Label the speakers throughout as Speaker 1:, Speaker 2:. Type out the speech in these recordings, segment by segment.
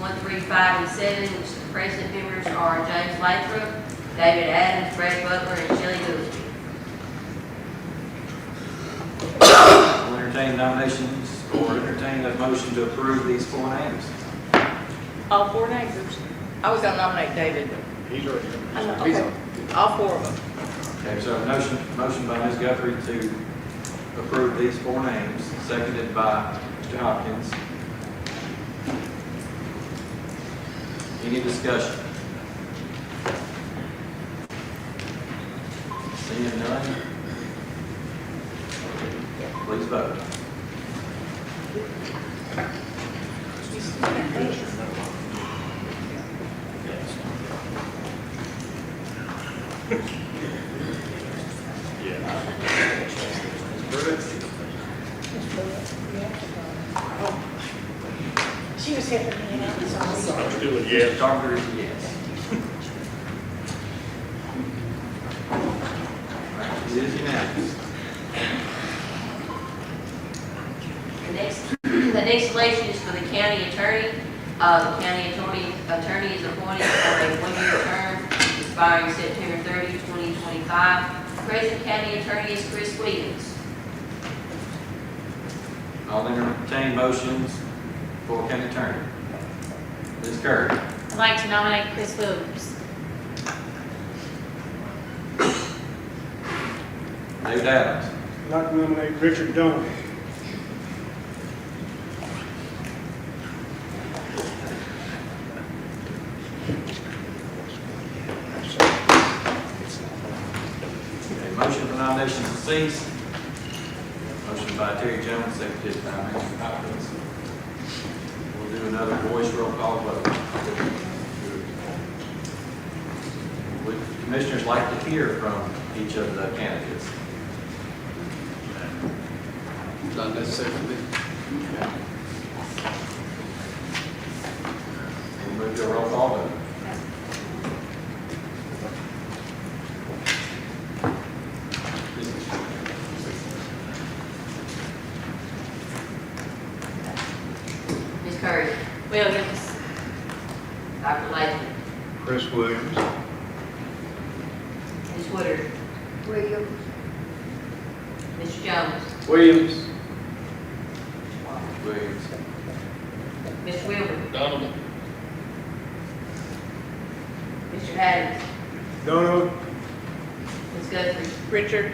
Speaker 1: one, three, five, and seven, which the present members are James Lathrop, David Adams, Brad Butler, and Shelley Lewis.
Speaker 2: We'll entertain nominations or entertain a motion to approve these four names.
Speaker 3: All four neighbors. I was gonna nominate David, but
Speaker 4: He's already done
Speaker 3: I
Speaker 4: this.
Speaker 3: know,
Speaker 4: He's
Speaker 3: okay. all four of them.
Speaker 2: Okay, so a motion, motion by Ms. Guthrie to approve these four names, seconded by Mr. Hopkins. Any discussion? Seeing none? Please vote. Ms. Pruitt?
Speaker 5: She was helping me, and I'm sorry.
Speaker 4: I'm still a
Speaker 2: Mr.
Speaker 4: yes.
Speaker 2: Carpenter is a yes. It is unanimous.
Speaker 1: The next, the next election is for the county attorney. Uh, the county attorney, attorney is appointed for a one-year term expiring September 30, 2025. Present county attorney is Chris Williams.
Speaker 2: I'll entertain motions for county attorney. Ms. Kerr,
Speaker 6: I'd like to nominate Chris Williams.
Speaker 2: David Adams,
Speaker 4: I'd like to nominate Richard Dolan.
Speaker 2: a motion for nomination to cease. Motion by Terry Jones, seconded by Mr. Hopkins. We'll do another voice roll call vote. Would commissioners like to hear from each of the candidates?
Speaker 7: Not necessarily.
Speaker 2: We'll move to a roll call vote.
Speaker 1: Ms. Curry,
Speaker 6: Williams.
Speaker 1: Dr. Latham,
Speaker 4: Chris Williams.
Speaker 1: Ms. Woodard. Williams. Mr. Jones.
Speaker 7: Williams.
Speaker 2: Williams.
Speaker 1: Mr. Wilbur.
Speaker 7: Donovan.
Speaker 1: Mr. Adams.
Speaker 4: Donald.
Speaker 1: Ms. Guthrie.
Speaker 3: Richard,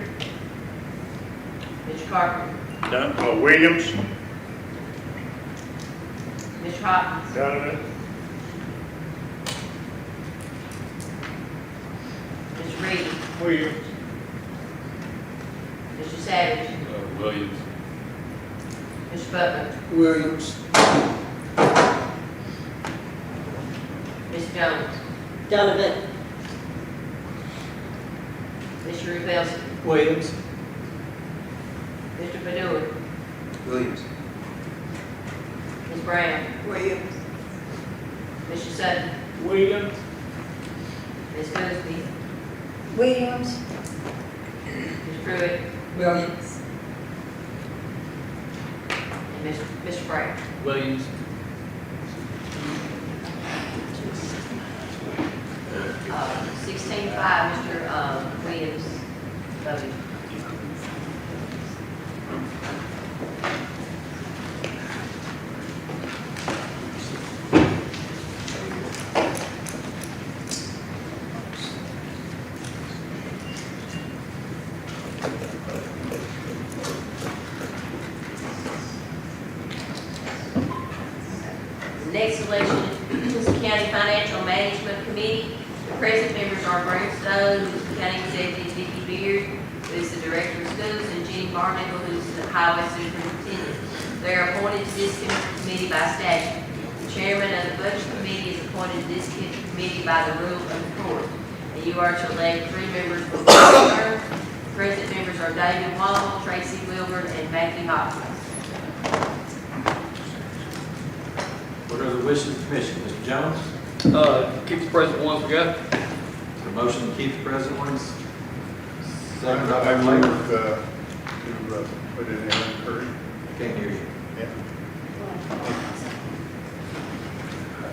Speaker 1: Mr. Carpenter.
Speaker 4: Don, uh, Williams.
Speaker 1: Mr. Hopkins.
Speaker 4: Donovan.
Speaker 1: Mr. Reed.
Speaker 4: Williams.
Speaker 1: Mr. Savage.
Speaker 7: Williams.
Speaker 1: Mr. Butler.
Speaker 7: Williams.
Speaker 1: Ms. Jones.
Speaker 5: Donovan.
Speaker 1: Mr. Rubelson.
Speaker 2: Williams.
Speaker 1: Mr. Benoit.
Speaker 7: Williams.
Speaker 1: Ms. Brown.
Speaker 5: Williams.
Speaker 1: Mr. Sutton.
Speaker 4: Williams.
Speaker 1: Ms. Boothby.
Speaker 5: Williams.
Speaker 1: Ms. Pruitt.
Speaker 5: Williams.
Speaker 1: And Mr. Mr. Brown.
Speaker 7: Williams.
Speaker 1: Uh, Sixteen five, Mr. uh, Williams voted. The Next election is the County Financial Management Committee. The present members are Brent Stone, who's the county executive, Vicky Beard, who's the director of schools, and Jenny Barnacle, who's the highway superintendent. They are appointed to this committee by statute. The chairman of the budget committee is appointed to this committee by the rule of the court. And you are to elect three members for one term. The Present members are David Wall, Tracy Wilburn, and Matthew Hopkins.
Speaker 2: What are the wishes of the commission? Mr. Jones?
Speaker 7: Uh, keep the present ones we got.
Speaker 2: The motion to keep the present ones. Second by
Speaker 4: I
Speaker 2: Dr. Latham.
Speaker 4: move, uh, to, uh, put in Alan Curry.
Speaker 2: Can't hear you.
Speaker 4: Yeah.